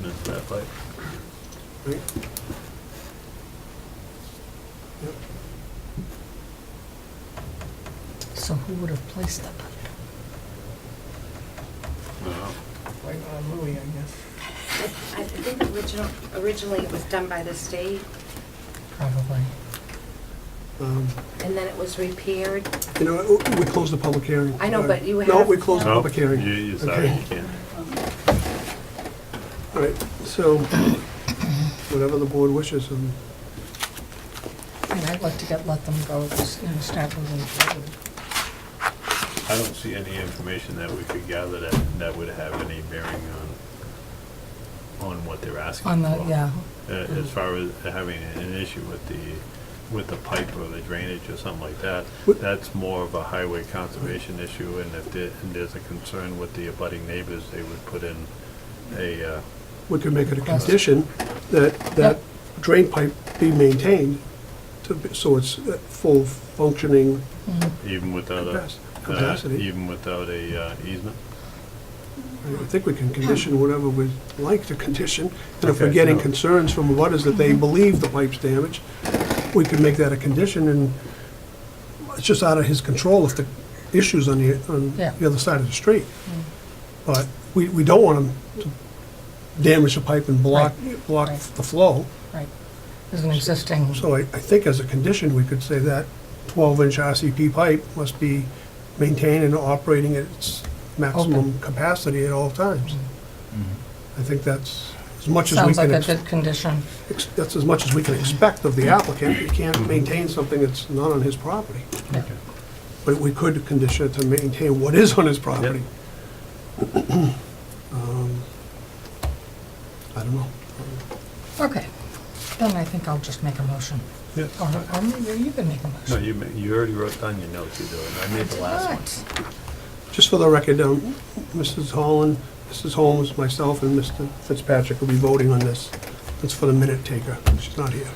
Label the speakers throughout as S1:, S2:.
S1: that pipe.
S2: Right.
S3: So who would have placed the pipe?
S2: Right on Louis, I guess.
S4: I think original, originally it was done by the state,
S3: Probably.
S2: Um,
S4: and then it was repaired.
S2: You know, oh, we- we closed the public hearing.
S4: I know, but you
S2: No,
S4: have-
S2: we closed the
S1: No,
S2: public hearing.
S1: you, you sorry,
S2: Okay.
S1: you can't.
S2: All right, so whatever the board wishes, um,
S3: And I'd like to get, let them go, you know, start moving forward.
S1: I don't see any information that we could gather that, that would have any bearing on, on what they're asking for.
S3: On the, yeah,
S1: Uh, As far as having an issue with the, with the pipe or the drainage or something like that,
S2: What-
S1: that's more of a highway conservation issue, and if there, and there's a concern with the abutting neighbors, they would put in a, uh,
S2: we could make it a
S3: Request.
S2: condition that that
S3: Yep.
S2: drain pipe be maintained to, be- so it's uh, full functioning.
S3: Mm-hmm.
S1: even without a,
S2: Capac-
S1: uh,
S2: capacity.
S1: even without a uh, easement.
S2: I think we can condition whatever we'd like to condition. And if we're
S1: Okay,
S2: getting
S1: no.
S2: concerns from abutters that they believe the pipe's damaged, we could make that a condition and it's just out of his control if the issue's on the, on
S3: Yeah. Mm.
S2: the other side of the street. But we, we don't want him to damage the pipe and block, block
S3: right.
S2: the flow.
S3: right. There's an existing,
S2: So I, I think as a condition, we could say that twelve-inch RCP pipe must be maintained and operating at its maximum capacity at all times. I think that's as much as we
S3: sounds like
S2: can,
S3: a
S2: ex-
S3: good condition.
S2: ex- that's as much as we can expect of the applicant. He can't maintain something that's not on his property.
S3: Yeah.
S2: But we could condition it to maintain what is on his property. Um, I don't know.
S3: Okay, then I think I'll just make a motion.
S1: Yeah.
S3: Or, or maybe you can make a
S1: No,
S3: motion.
S1: you, ma- you already wrote down your notes, you do, it. I made the last one.
S3: What?
S2: Just for the record, um, Mrs. Holland, Mrs. Holmes, myself, and Mr. Fitzpatrick will be voting on this. It's for the minute taker. She's not here.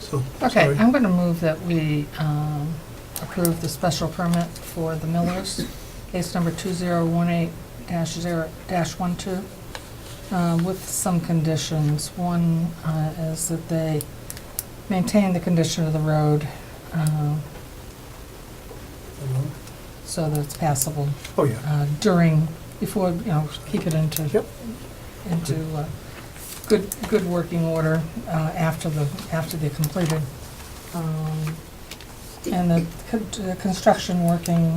S2: So,
S3: Okay,
S2: sorry.
S3: I'm gonna move that we, um, approve the special permit for the Millers, case number two zero one eight dash zero, dash one two, uh, with some conditions. One, uh, is that they maintain the condition of the road, um, so that it's passable
S2: Oh, yeah.
S3: uh, during, before, you know, keep it into,
S2: Yep.
S3: into uh, good, good working order uh, after the, after they're completed. Um, And the con- the construction working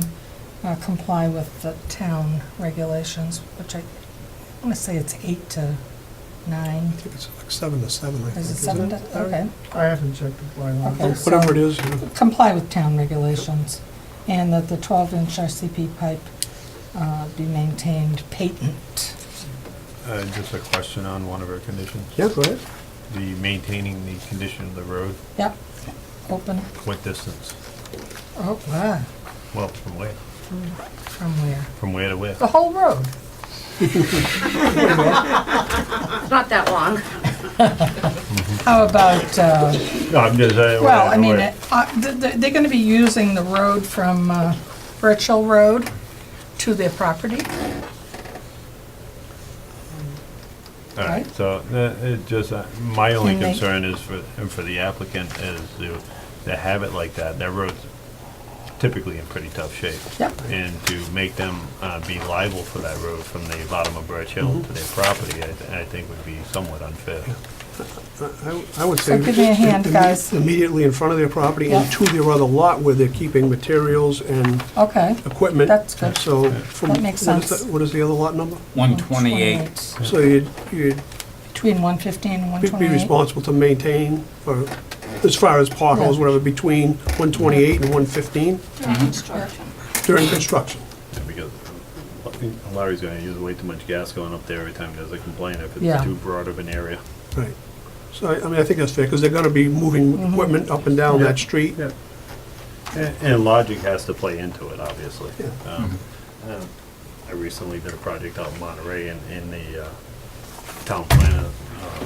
S3: uh, comply with the town regulations, which I want to say it's eight to nine.
S2: I think it's like seven to seven, I think.
S3: Is it
S2: isn't Oh,
S3: seven to, okay.
S5: I haven't checked the bylaw.
S3: Okay, so-
S2: Whatever it is, you know,
S3: comply with town regulations, and that the 12-inch RCP pipe uh, be maintained patent.
S1: Uh, just a question on one of our conditions.
S2: yeah, go ahead.
S1: The maintaining the condition of the road,
S3: Yep, open,
S1: what distance?
S3: oh, wow,
S1: Well, from where?
S3: from where?
S1: From where to where?
S3: The whole road.
S4: It's not that long.
S3: How about, uh,
S1: No, I'm just, I.
S3: well, I mean, uh, th- th- they're going to be using the road from uh, Birch Hill Road to their property,
S1: All right,
S3: right.
S1: so, uh, it just, uh, my only
S3: Can they-
S1: concern is for, and for the applicant is to, to have it like that. Their road's typically in pretty tough shape.
S3: Yep.
S1: And to make them, uh, be liable for that road from the bottom of Birch
S3: Mm-hmm.
S1: Hill to their property, I, th- I think would be somewhat unfair.
S2: I- I- I would
S3: So
S2: say.
S3: give me a hand,
S2: imme-
S3: guys.
S2: Immediately in front of their property and
S3: Yeah.
S2: to their other lot where they're keeping materials and
S3: okay,
S2: equipment.
S3: That's good.
S2: So from.
S3: That makes
S2: what is
S3: sense.
S2: the- What is the other lot number?
S6: 128.
S2: So you'd, you'd
S3: between 115 and
S2: be- be
S3: 128.
S2: responsible to maintain, or as far as potholes,
S3: Yeah.
S2: whatever, between 128 and 115
S4: Construction.
S2: during construction.
S1: Because Larry's gonna use way too much gas going up there every time there's a complaint if
S3: Yeah.
S1: it's too broad of an area.
S2: Right. So I I mean, I think that's fair, because they're going to be moving equipment up and down
S1: Mm-hmm. Yeah.
S2: that street.
S1: Yeah. And, and logic has to play into it, obviously.
S2: Yeah.
S1: Um, um, I recently did a project out in Monterey and, and the, uh, town planner, uh,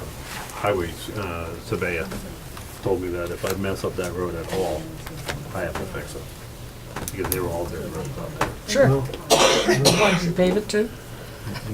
S1: highway, uh, surveyor told me that if I mess up that road at all, I have to fix it. Because they were all dirt roads out there.
S3: Sure.
S2: Well,
S3: Wanted to pave it too?